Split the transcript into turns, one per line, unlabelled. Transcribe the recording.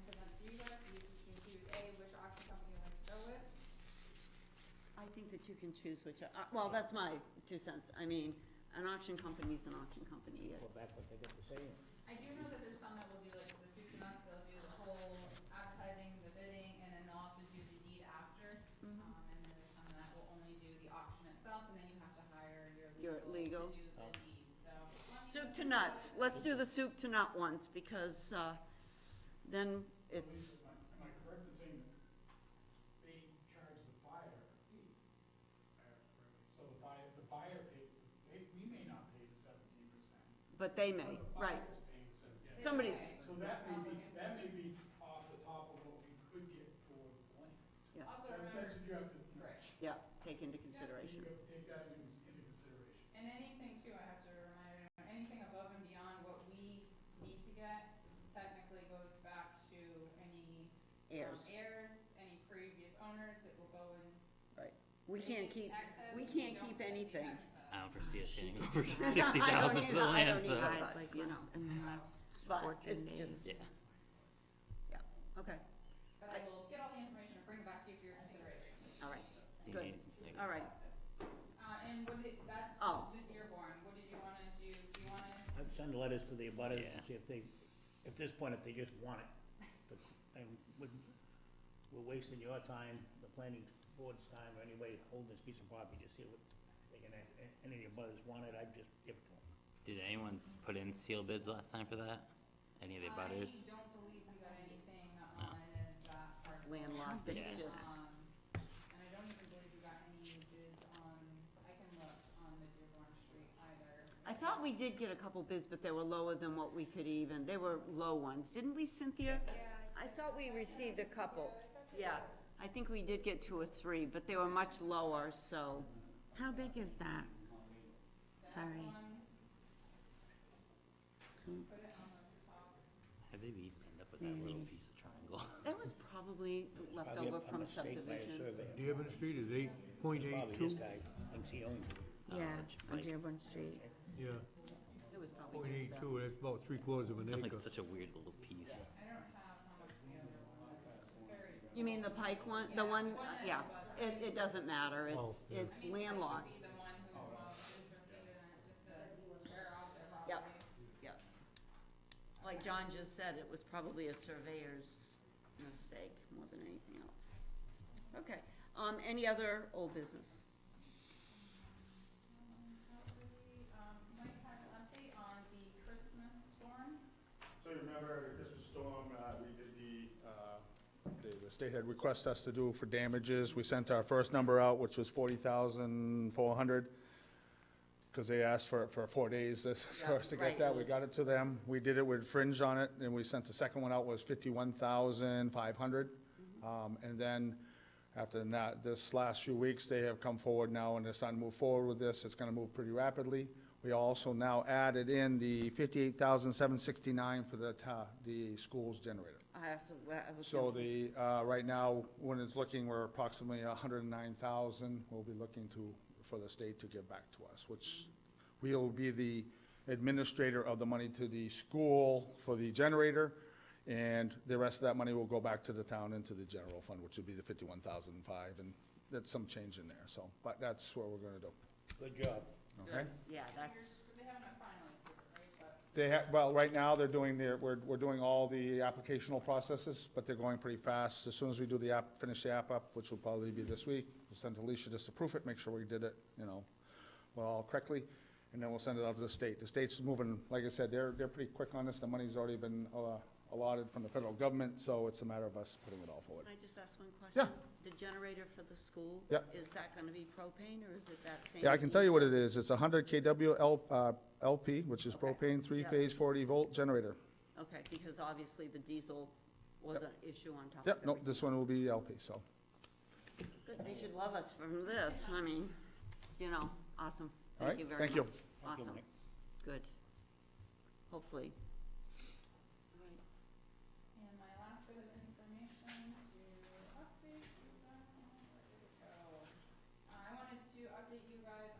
dealer, so you can choose A, which auction company you like to go with.
I think that you can choose which, uh, well, that's my two cents. I mean, an auction company's an auction company,
Well,
it's,
that's what they get to say.
I do know that there's some that will do like the soup to nuts, they'll do the whole advertising, the bidding, and then they'll also do the deed after.
Mm-hmm.
Um, and then there's some that will only do the auction itself, and then you have to hire
Your
your legal
legal.
to do the deed, so. once you
soup
know
to
the-
nuts. Let's do the soup to nut ones, because, uh, then it's,
Am I am I correct in saying that they charge the buyer a fee? So the buyer, the buyer paid, they, we may not pay the seventeen percent.
but they may, right.
But the buyer's paying the 17%.
Somebody's-
So that may be, that may be off the top of what we could get for the blank.
Yeah.
Also
That-
remember,
That's what you have to, you know,
right,
Yeah, take into
you
consideration.
have to take that into into consideration.
and anything too, I have to remind everyone, anything above and beyond what we need to get technically goes back to any um,
Heirs,
heirs, any previous owners, it will go in
we can't keep, we can't keep anything.
I
Oh.
don't foresee us getting over
I don't
sixty thousand
need-
for the uh,
I
land,
don't
so,
need that.
I'd
but,
like
you
less
know,
and less.
but
14
it's
days.
just,
yeah.
okay,
But I will get all the information and bring it back to you for your consideration.
all right,
You
Good.
need- like,
all right.
Uh, and what did, that's
Oh.
just the Dearborn, what did you wanna do, do you wanna,
I'd send letters to the abutters and
Yeah.
see if they, at this point, if they just want it. But- And we're, we're wasting your time, the planning board's time, or anybody holding this piece of property, just see what they can, act- a- any of the abutters want it, I'd just give it to them.
Did anyone put in seal bids last time for that? Any of the butters?
I don't believe we got anything on that part.
landlocked, it's
Yeah.
just,
Um, and I don't even believe we got any bids on, I can look on the Dearborn Street either.
I thought we did get a couple bids, but they were lower than what we could even, they were low ones, didn't we, Cynthia? I thought we received a couple, yeah, I think we did get two or three, but they were much lower, so,
How big is that?
Hmm.
Sorry.
Have they be end up with that
Mm-hmm.
little piece of triangle?
that was probably left
Probably a-
over
a
from
mistake by a
subdivision.
surveyor.
Dearborn Street is eight point
Probably
eight
this
two,
guy, thinks he owns it.
Yeah,
it's
on
like-
Dearborn Street.
yeah,
It was
point
probably just,
eight
uh,
two, that's about three quarters of an
Like
acre.
such a weird little piece.
I don't have how much the other one was, it's very small.
you mean the Pike one, the
Yeah,
one,
one that
yeah,
was-
it, it doesn't matter,
Oh,
it's,
yeah.
I
it's
mean, Frank would
landlocked,
Be the one who was most interested in it, just to square off their property.
Yep. yeah. Like John just said, it was probably a surveyor's mistake more than anything else. Okay, um, any other old business?
Um, hopefully, um, Mike has an update on the Christmas storm.
So you remember Christmas storm, uh, we did the, uh, the- the state had requested us to do for damages. We sent our first number out, which was forty thousand four hundred, because they asked for, for four days this- for us to
right,
get that.
it
We
was-
got it to them. We did it with fringe on it, and we sent the second one out was fifty-one thousand five hundred.
Mm-hmm.
Um, and then after that, this last few weeks, they have come forward now and they're starting to move forward with this. It's gonna move pretty rapidly. We also now added in the fifty-eight thousand seven sixty-nine for the ta, the school's generator.
I also, well, I was.
So
gonna-
the, uh, right now, when it's looking, we're approximately hundred and nine thousand, we'll be looking to, for the state to give back to us, which we'll be the administrator of the money to the school for the generator, and the rest of that money will go back to the town into the general fund, which would be the fifty-one thousand five, and that's some change in there, so, but that's what we're gonna do,
Good job.
okay?
Yeah, that's.
Here's- They haven't finally approved it, right, but
They have, well, right now, they're doing their, we're, we're doing all the applicational processes, but they're going pretty fast. As soon as we do the app, finish the app up, which will probably be this week, we'll send to Alicia just to proof it, make sure we did it, you know, well, correctly, and then we'll send it out to the state. The state's moving, like I said, they're, they're pretty quick on this. The money's already been uh, allotted from the federal government, so it's a matter of us putting it all forward.
Can I just ask one question?
Yeah.
The generator for the school?
Yeah.
Is that gonna be propane or is it that same?
Yeah, I can tell you what
diesel?
it is. It's a hundred KW L- uh, LP, which is
Okay.
propane, three-phase, forty volt generator.
Okay, because obviously the diesel was an issue on top of
Yep,
everything.
no, this one will be LP, so.
Good, They should love us from this, I mean, you know, awesome.
All right,
Thank you very much.
thank you.
Thank you,
Awesome,
Mike.
good. Hopefully.
And my last bit of information to update you guys, um, where did it go? Uh, I wanted to update you guys